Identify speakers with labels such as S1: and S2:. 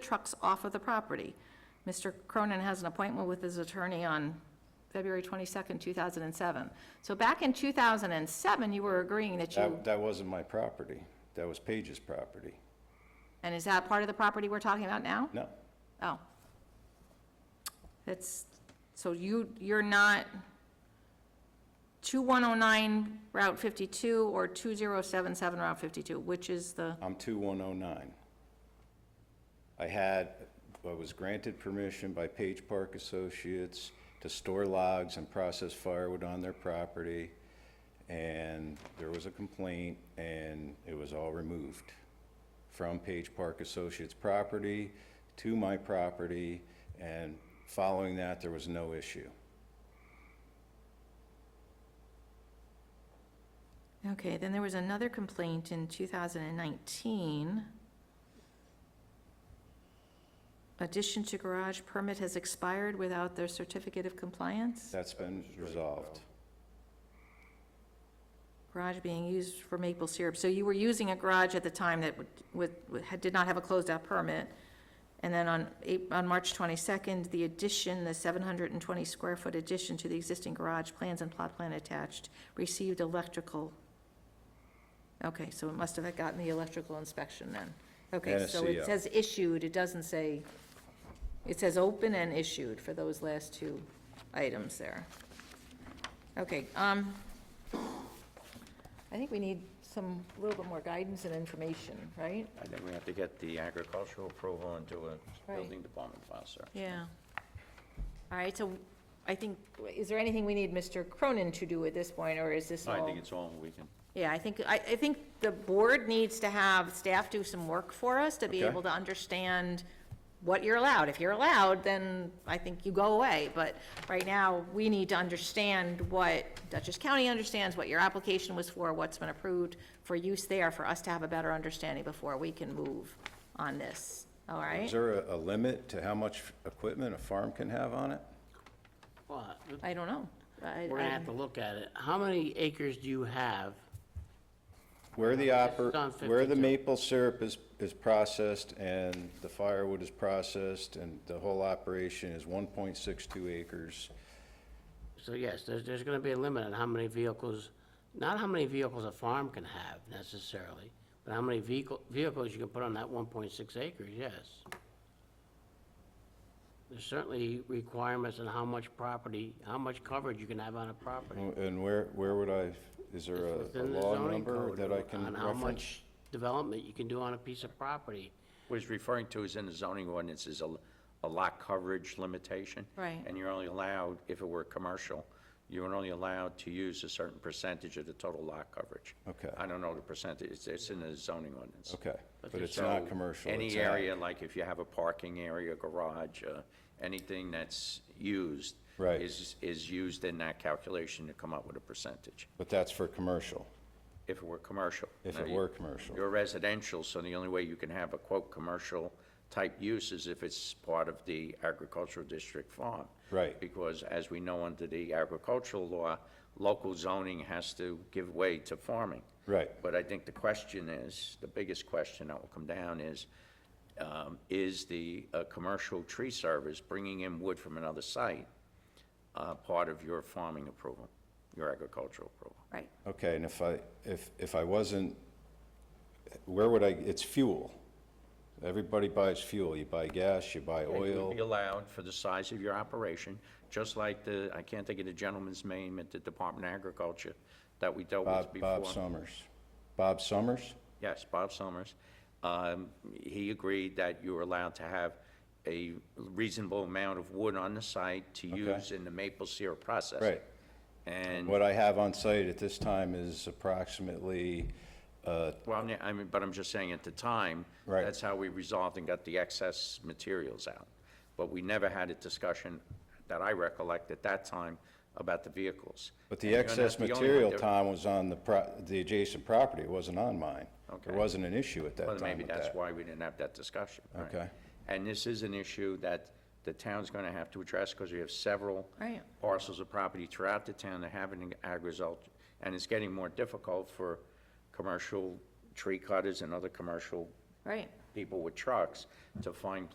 S1: trucks off of the property. Mr. Cronin has an appointment with his attorney on February 22nd, 2007. So back in 2007, you were agreeing that you,
S2: That, that wasn't my property. That was Page's property.
S1: and is that part of the property we're talking about now?
S2: No,
S1: Oh. That's, so you, you're not 2109 Route 52 or 2077 Route 52, which is the,
S2: I'm 2109. I had, I was granted permission by Page Park Associates to store logs and process firewood on their property, and there was a complaint, and it was all removed from Page Park Associates' property to my property, and following that, there was no issue.
S1: okay, then there was another complaint in 2019. Addition to garage permit has expired without their certificate of compliance?
S2: That's been resolved.
S1: Garage being used for maple syrup. So you were using a garage at the time that would- would, would- had- did not have a closed-out permit. And then on, Ap- on March 22nd, the addition, the 720-square-foot addition to the existing garage, plans and plot plan attached, received electrical. Okay, so it must have gotten the electrical inspection then. Okay, so
S2: NSCO.
S1: it says issued, it doesn't say, it says open and issued for those last two items there. Okay, um, I think we need some, a little bit more guidance and information, right?
S3: I think we have to get the agricultural approval into a building department file, sir.
S1: Yeah. All right, so I think, is there anything we need Mr. Cronin to do at this point, or is this
S3: I
S1: all?
S3: think it's all we can,
S1: Yeah, I think, I, I think the board needs to have staff do some work for us to be
S2: Okay.
S1: able to understand what you're allowed. If you're allowed, then I think you go away, but right now, we need to understand what Dutchess County understands, what your application was for, what's been approved for use there, for us to have a better understanding before we can move on this, all right?
S2: Is there a, a limit to how much equipment a farm can have on it?
S4: Well,
S1: I don't know. I-
S4: we're gonna
S1: I-
S4: have to look at it. How many acres do you have?
S2: Where the oper,
S4: It's on
S2: where the
S4: 52.
S2: maple syrup is, is processed and the firewood is processed and the whole operation is one point six two acres.
S4: So yes, there's, there's gonna be a limit on how many vehicles, not how many vehicles a farm can have necessarily, but how many vehicle, vehicles you can put on that one point six acres, yes. There's certainly requirements on how much property, how much coverage you can have on a property.
S2: And where, where would I, is there
S4: It's
S2: a- uh, a
S4: within the
S2: law
S4: zoning
S2: number
S4: code
S2: that I can
S4: On how
S2: reference?
S4: much development you can do on a piece of property.
S3: what he's referring to is in the zoning ordinance is a, a lot coverage limitation.
S1: Right.
S3: And you're only allowed, if it were commercial, you're only allowed to use a certain percentage of the total lot coverage.
S2: Okay.
S3: I don't know the percentage, it's, it's in the zoning ordinance.
S2: Okay, but it's
S3: So
S2: not commercial.
S3: Any
S2: it's ag.
S3: area, like if you have a parking area, garage, uh, anything that's used.
S2: Right.
S3: Is, is used in that calculation to come up with a percentage,
S2: But that's for commercial.
S3: if it were commercial.
S2: If
S3: Now,
S2: it
S3: you-
S2: were commercial.
S3: You're residential, so the only way you can have a quote, "commercial" type use is if it's part of the agricultural district farm.
S2: Right.
S3: Because as we know under the agricultural law, local zoning has to give way to farming.
S2: Right.
S3: But I think the question is, the biggest question that will come down is, um, is the uh, commercial tree service bringing in wood from another site uh, part of your farming approval, your agricultural approval?
S1: Right,
S2: Okay, and if I, if, if I wasn't, where would I, it's fuel. Everybody buys fuel. You buy gas, you buy
S3: It
S2: oil.
S3: would be allowed for the size of your operation, just like the, I can't think of the gentleman's name at the Department of Agriculture that we dealt with
S2: Bob,
S3: before.
S2: Bob Summers. Bob Summers?
S3: Yes, Bob Summers. Um, He agreed that you were allowed to have a reasonable amount of wood on the site to use in the maple syrup process.
S2: Right.
S3: And, well,
S2: What I have on site at this time is approximately, uh,
S3: I mean- I mean, but I'm just saying, at the time,
S2: Right.
S3: that's how we resolved and got the excess materials out. But we never had a discussion that I recollect at that time about the vehicles.
S2: but
S3: And
S2: the
S3: you're not
S2: excess
S3: the only one.
S2: material,
S3: There-
S2: Tom, was on the pro, the adjacent property, it wasn't on mine. There
S3: Okay.
S2: wasn't an issue at that
S3: Well,
S2: time
S3: maybe
S2: with
S3: that's
S2: that.
S3: why we didn't have that discussion. right.
S2: Okay.
S3: And this is an issue that the town's going to have to address because we have several
S1: Right.
S3: parcels of property throughout the town that have an agriculture, and it's getting more difficult for commercial tree cutters and other commercial
S1: right.
S3: people with trucks to find